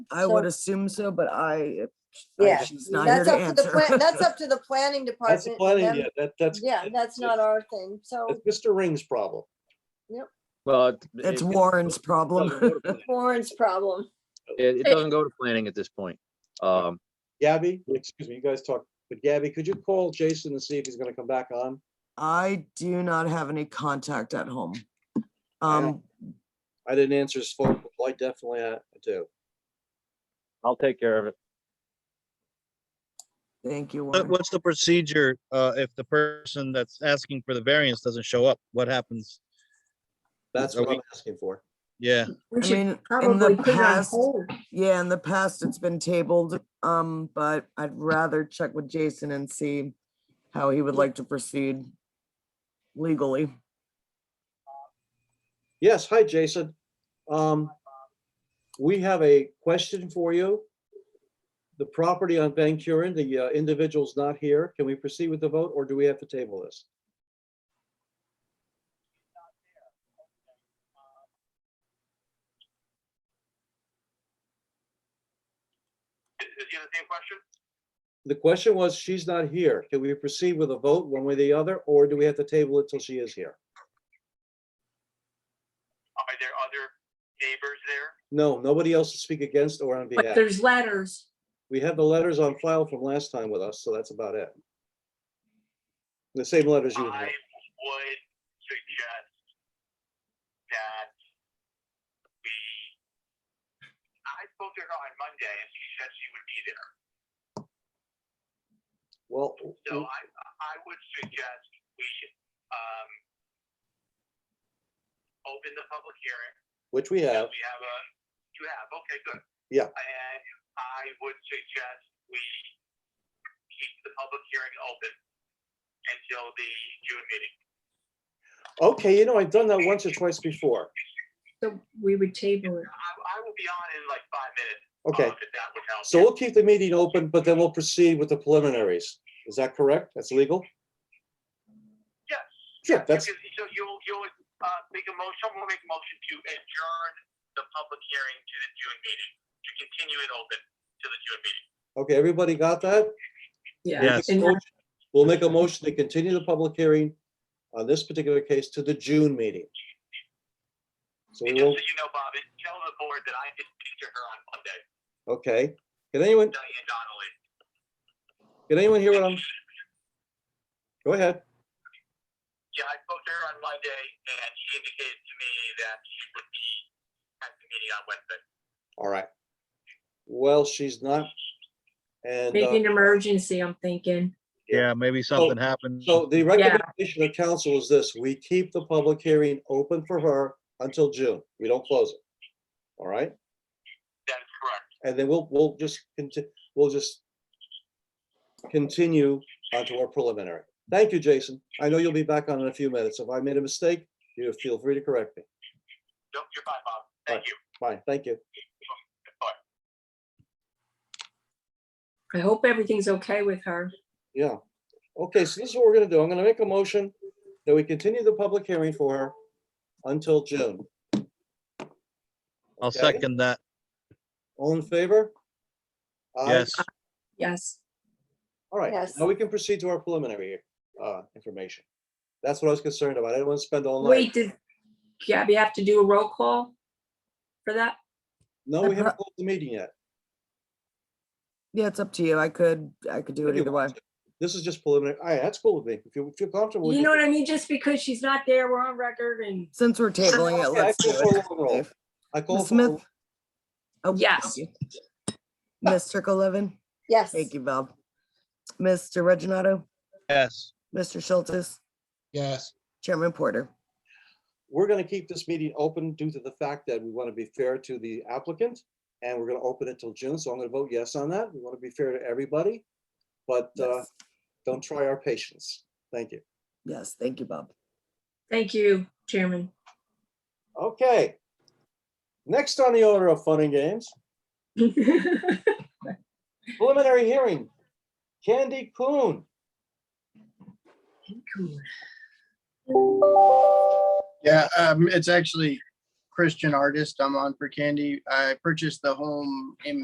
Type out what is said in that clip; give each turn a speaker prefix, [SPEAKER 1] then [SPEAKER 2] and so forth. [SPEAKER 1] I would assume so, but I, I-
[SPEAKER 2] Yeah,
[SPEAKER 1] she's not here
[SPEAKER 2] that's
[SPEAKER 1] to
[SPEAKER 2] up to the,
[SPEAKER 1] answer.
[SPEAKER 2] plan. that's up to the planning department.
[SPEAKER 3] That's the
[SPEAKER 2] and
[SPEAKER 3] planning,
[SPEAKER 2] them-
[SPEAKER 3] yeah, that, that's.
[SPEAKER 2] Yeah, that's not our thing, so
[SPEAKER 3] It's Mr. Ring's problem.
[SPEAKER 4] Well, it-
[SPEAKER 1] It's
[SPEAKER 4] it-
[SPEAKER 1] Warren's problem.
[SPEAKER 3] Doesn't go to planning.
[SPEAKER 2] Warren's problem.
[SPEAKER 4] It, it doesn't go to planning at this point. Um,
[SPEAKER 3] Gabby, excuse me, you guys talk, but Gabby, could you call Jason and see if he's gonna come back on?
[SPEAKER 1] I do not have any contact at home. Um,
[SPEAKER 3] I didn't answer his phone, but I definitely uh, do.
[SPEAKER 4] I'll take care of it.
[SPEAKER 1] thank you,
[SPEAKER 5] What,
[SPEAKER 1] Warren.
[SPEAKER 5] what's the procedure, uh, if the person that's asking for the variance doesn't show up? What happens?
[SPEAKER 3] That's what I'm asking for.
[SPEAKER 5] Yeah,
[SPEAKER 1] I mean, in the past, yeah, in the past, it's been tabled, um, but I'd rather check with Jason and see how he would like to proceed legally.
[SPEAKER 3] Yes, hi, Jason. Um, we have a question for you. The property on Van Kuren, the uh, individual's not here. Can we proceed with the vote or do we have to table this?
[SPEAKER 6] Is he the same question?
[SPEAKER 3] The question was, she's not here. Can we proceed with a vote one way or the other, or do we have to table it till she is here?
[SPEAKER 6] Are there other neighbors there?
[SPEAKER 3] No, nobody else to speak against or on
[SPEAKER 7] But
[SPEAKER 3] behalf.
[SPEAKER 7] there's letters.
[SPEAKER 3] We have the letters on file from last time with us, so that's about it. The same letters you
[SPEAKER 6] I
[SPEAKER 3] have.
[SPEAKER 6] would suggest that we, I spoke to her on Monday and she said she would be there.
[SPEAKER 3] Well,
[SPEAKER 6] So I, I would suggest we, um, open the public hearing.
[SPEAKER 3] which we
[SPEAKER 6] that
[SPEAKER 3] have.
[SPEAKER 6] We have a, you have, okay, good.
[SPEAKER 3] Yeah.
[SPEAKER 6] And I would suggest we keep the public hearing open until the June meeting.
[SPEAKER 3] Okay, you know, I've done that once or twice before.
[SPEAKER 7] So we would table it.
[SPEAKER 6] I, I will be on in like five minutes.
[SPEAKER 3] Okay,
[SPEAKER 6] um, If that would help.
[SPEAKER 3] so we'll keep the meeting open, but then we'll proceed with the preliminaries. Is that correct? That's legal?
[SPEAKER 6] Yes.
[SPEAKER 3] Sure, that's,
[SPEAKER 6] You can- So you'll, you'll, uh, make a motion, someone will make a motion to adjourn the public hearing to the June meeting, to continue it open to the June meeting.
[SPEAKER 3] okay, everybody got that?
[SPEAKER 5] yes.
[SPEAKER 7] And I-
[SPEAKER 3] We'll make a motion to continue the public hearing on this particular case to the June meeting. So
[SPEAKER 6] And
[SPEAKER 3] we
[SPEAKER 6] just
[SPEAKER 3] will,
[SPEAKER 6] so you know, Bob, and tell the board that I did speak to her on Monday,
[SPEAKER 3] okay. Can anyone,
[SPEAKER 6] Diane Donnelly.
[SPEAKER 3] can anyone hear what I'm? Go ahead.
[SPEAKER 6] Yeah, I spoke to her on Monday and she indicated to me that she would be at the meeting on Wednesday.
[SPEAKER 3] All right. Well, she's not. And
[SPEAKER 7] Make
[SPEAKER 3] uh,
[SPEAKER 7] an emergency, I'm thinking.
[SPEAKER 5] Yeah, maybe something happened.
[SPEAKER 3] so the recommendation of council is this, we keep the public hearing open for her until June. We don't close it. All right?
[SPEAKER 6] That is correct.
[SPEAKER 3] And then we'll, we'll just, conti- we'll just continue onto our preliminary. Thank you, Jason. I know you'll be back on in a few minutes. If I made a mistake, you feel free to correct me.
[SPEAKER 6] Nope, you're fine, Bob. Thank you.
[SPEAKER 3] Fine, thank you.
[SPEAKER 7] I hope everything's okay with her.
[SPEAKER 3] Yeah. Okay, so this is what we're gonna do. I'm gonna make a motion that we continue the public hearing for her until June.
[SPEAKER 5] I'll
[SPEAKER 3] okay.
[SPEAKER 5] second that.
[SPEAKER 3] All in favor? Aye.
[SPEAKER 5] Yes,
[SPEAKER 7] Yes.
[SPEAKER 3] All right,
[SPEAKER 2] Yes.
[SPEAKER 3] now we can proceed to our preliminary uh, information. That's what I was concerned about. I didn't want to spend all night.
[SPEAKER 7] Wait, did Gabby have to do a roll call for that?
[SPEAKER 3] No, we haven't closed the meeting yet.
[SPEAKER 1] Yeah, it's up to you. I could, I could do
[SPEAKER 3] If
[SPEAKER 1] it
[SPEAKER 3] you
[SPEAKER 1] either way.
[SPEAKER 3] want to. This is just preliminary. All right, that's cool with me. If you feel comfortable. we
[SPEAKER 7] You
[SPEAKER 3] can-
[SPEAKER 7] know what I mean? Just because she's not there, we're on record and
[SPEAKER 1] Since we're tabling it,
[SPEAKER 3] Okay, I
[SPEAKER 1] let's do
[SPEAKER 3] call
[SPEAKER 1] it.
[SPEAKER 3] for a roll. I call
[SPEAKER 1] Ms.
[SPEAKER 3] for, a roll.
[SPEAKER 1] Smith? Oh,
[SPEAKER 7] Yes.
[SPEAKER 1] thank you. Ms. Levin.
[SPEAKER 2] Yes.
[SPEAKER 1] Thank you, Bob. Mr. Reggino,
[SPEAKER 5] yes.
[SPEAKER 1] Mr. Schultz,
[SPEAKER 5] Yes.
[SPEAKER 1] Chairman Porter.
[SPEAKER 3] we're going to keep this meeting open due to the fact that we want to be fair to the applicant and we're going to open it till June. So I'm going to vote yes on that. We want to be fair to everybody. But uh,
[SPEAKER 1] Yes.
[SPEAKER 3] don't try our patience. Thank you.
[SPEAKER 1] Yes, thank you, Bob.
[SPEAKER 7] thank you, Chairman.
[SPEAKER 3] Okay. Next on the order of fun and games, preliminary hearing. Candy Coon.
[SPEAKER 7] Cool.
[SPEAKER 8] Yeah, um, it's actually Chris Christian artist. I'm on for Candy. I purchased the home in